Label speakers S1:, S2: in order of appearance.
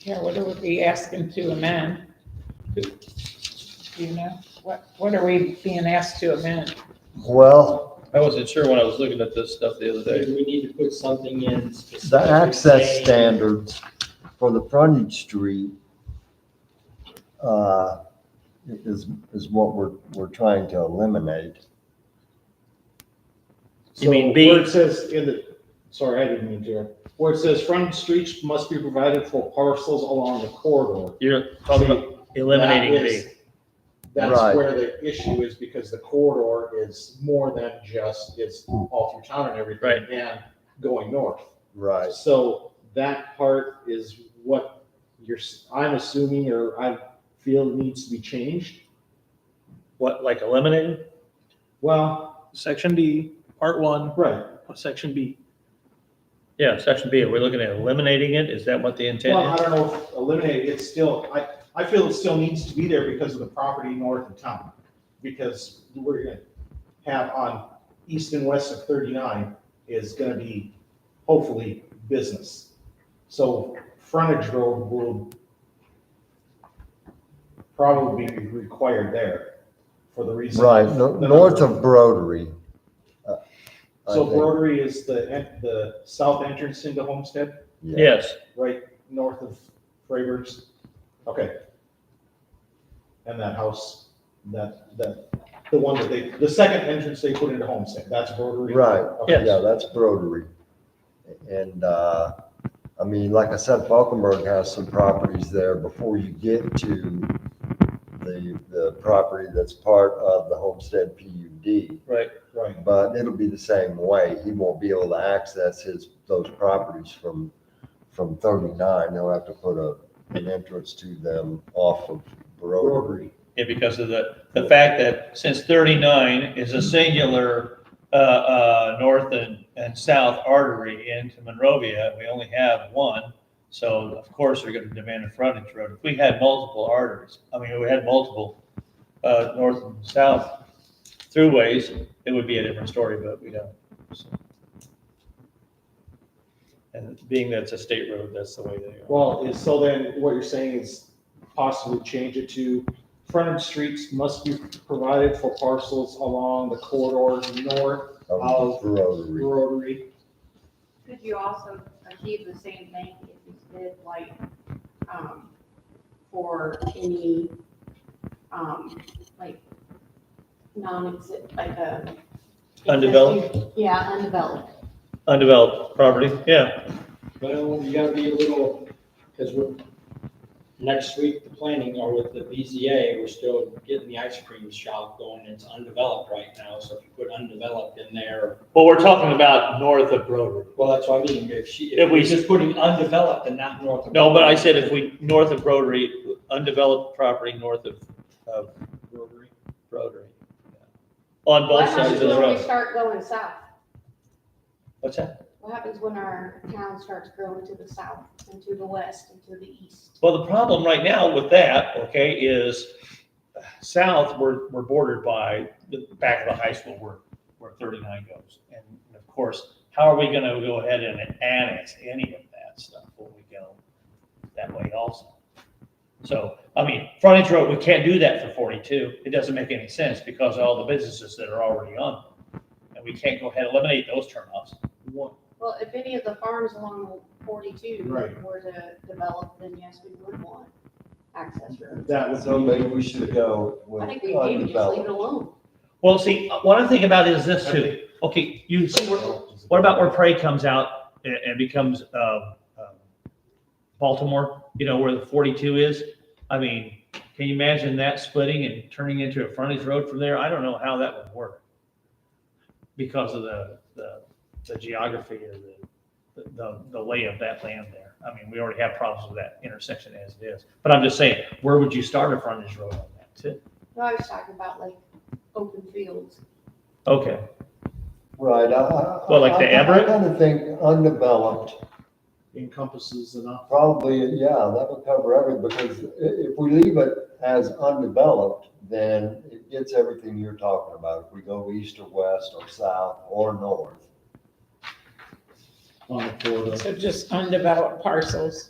S1: Yeah, what are we asking to amend? Do you know? What, what are we being asked to amend?
S2: Well,
S3: I wasn't sure when I was looking at this stuff the other day.
S4: Maybe we need to put something in specific.
S2: the access
S4: saying-
S2: standards for the frontage street uh, is, is what we're, we're trying to eliminate.
S4: You mean
S5: So
S4: B?
S5: Where it says in the, sorry, I didn't mean to. Where it says front streets must be provided for parcels along the corridor.
S3: You're talking about,
S5: That
S4: Eliminating
S5: is-
S4: B.
S2: Right.
S5: That's where the issue is because the corridor is more than just, it's all through town and everything.
S3: Right.
S5: And going north.
S2: Right.
S5: So that part is what you're, s- I'm assuming, or I feel needs to be changed.
S4: What, like eliminating?
S5: Well,
S6: Section D, part one,
S5: right.
S6: section B.
S4: Yeah, section B, are we looking at eliminating it? Is that what the
S5: Well, I
S4: intent is?
S5: don't know if eliminated, it's still, I, I feel it still needs to be there because of the property north of town. Because we're gonna have on east and west of thirty-nine is gonna be hopefully business. So frontage road will probably be required there for the reason.
S2: Right, no-
S5: that I
S2: north
S5: wrote.
S2: of Broderie. uh, I
S5: So
S2: think,
S5: Rotary is the, en- the south entrance into Homestead?
S4: Yes,
S5: right north of Freiberg's. Okay. And that house, that, that, the one that they, the second entrance they put into Homestead, that's Rotary.
S2: Right,
S5: Okay.
S2: yeah, that's Broderie. And, uh, I mean, like I said, Falkenberg has some properties there before you get to the, the property that's part of the Homestead PUD.
S3: right,
S5: Right,
S2: But it'll be the same way. He won't be able to access his, those properties from, from thirty-nine. He'll have to put a, an entrance to them off of Broderie.
S5: Rotary,
S3: yeah, because of the, the fact that since thirty-nine is a singular, uh, uh, north and, and south artery into Monrovia, we only have one. So of course, they're gonna demand a frontage road. If we had multiple arteries, I mean, if we had multiple, uh, north and south throughways, it would be a different story, but we don't. so. And being that it's a state road, that's the way they are.
S5: well, is, so then what you're saying is possibly change it to frontage streets must be provided for parcels along the corridor north
S2: Of Broderie.
S5: Rotary.
S7: Could you also achieve the same thing if you did like, um, for any, um, like, non-exist, like a.
S3: Undeveloped?
S7: Yeah, undeveloped.
S3: Undeveloped property, yeah,
S4: well, you gotta be a little, because we're, next week, the planning or with the BZA, we're still getting the ice cream shop going. It's undeveloped right now, so if you put undeveloped in there,
S3: well, we're talking about north of Broderie.
S4: well, that's what I mean. If she,
S3: If
S4: if
S3: we-
S4: we're just putting undeveloped and not north of.
S3: No, but I said if we, north of Rotary, undeveloped property north of, of
S4: Rotary.
S3: Rotary. On
S7: What
S3: both sides
S7: happens
S3: of the
S7: when we
S3: road.
S7: start going south?
S3: What's that?
S7: What happens when our town starts growing to the south and to the west and to the east?
S3: Well, the problem right now with that, okay, is south, we're, we're bordered by the back of the high school where, where thirty-nine goes. And of course, how are we gonna go ahead and annex any of that stuff when we go that way also? So, I mean, frontage road, we can't do that for forty-two. It doesn't make any sense because of all the businesses that are already on. And we can't go ahead and eliminate those turnoffs.
S5: One-
S7: Well, if any of the farms along forty-two
S5: Right.
S7: were to develop, then yes, we would want access roads.
S5: That would
S2: So
S5: be.
S2: maybe we should go with
S7: I think we can just leave it
S2: undeveloped.
S7: alone.
S3: Well, see, what I think about is this too. Okay, you see where, What about where Prey comes out and, and becomes um, um, Baltimore? You know where the 42 is. I mean, can you imagine that splitting and turning into a frontage road from there? I don't know how that would work because of the the, the geography or the, the the lay of that land there. I mean, we already have problems with that intersection as it is. But I'm just saying, where would you start a frontage road on that? too?
S7: No, I was talking about like open fields.
S3: Okay,
S2: Right, I- I.
S3: Well, like the
S2: I- I-
S3: Everett?
S2: I kind of think undeveloped
S5: Encompasses enough.
S2: Probably, yeah, that would cover everything, because i- if we leave it as undeveloped, then it gets everything you're talking about. If we go east or west or south or north.
S5: on the corridor.
S1: So just undeveloped parcels.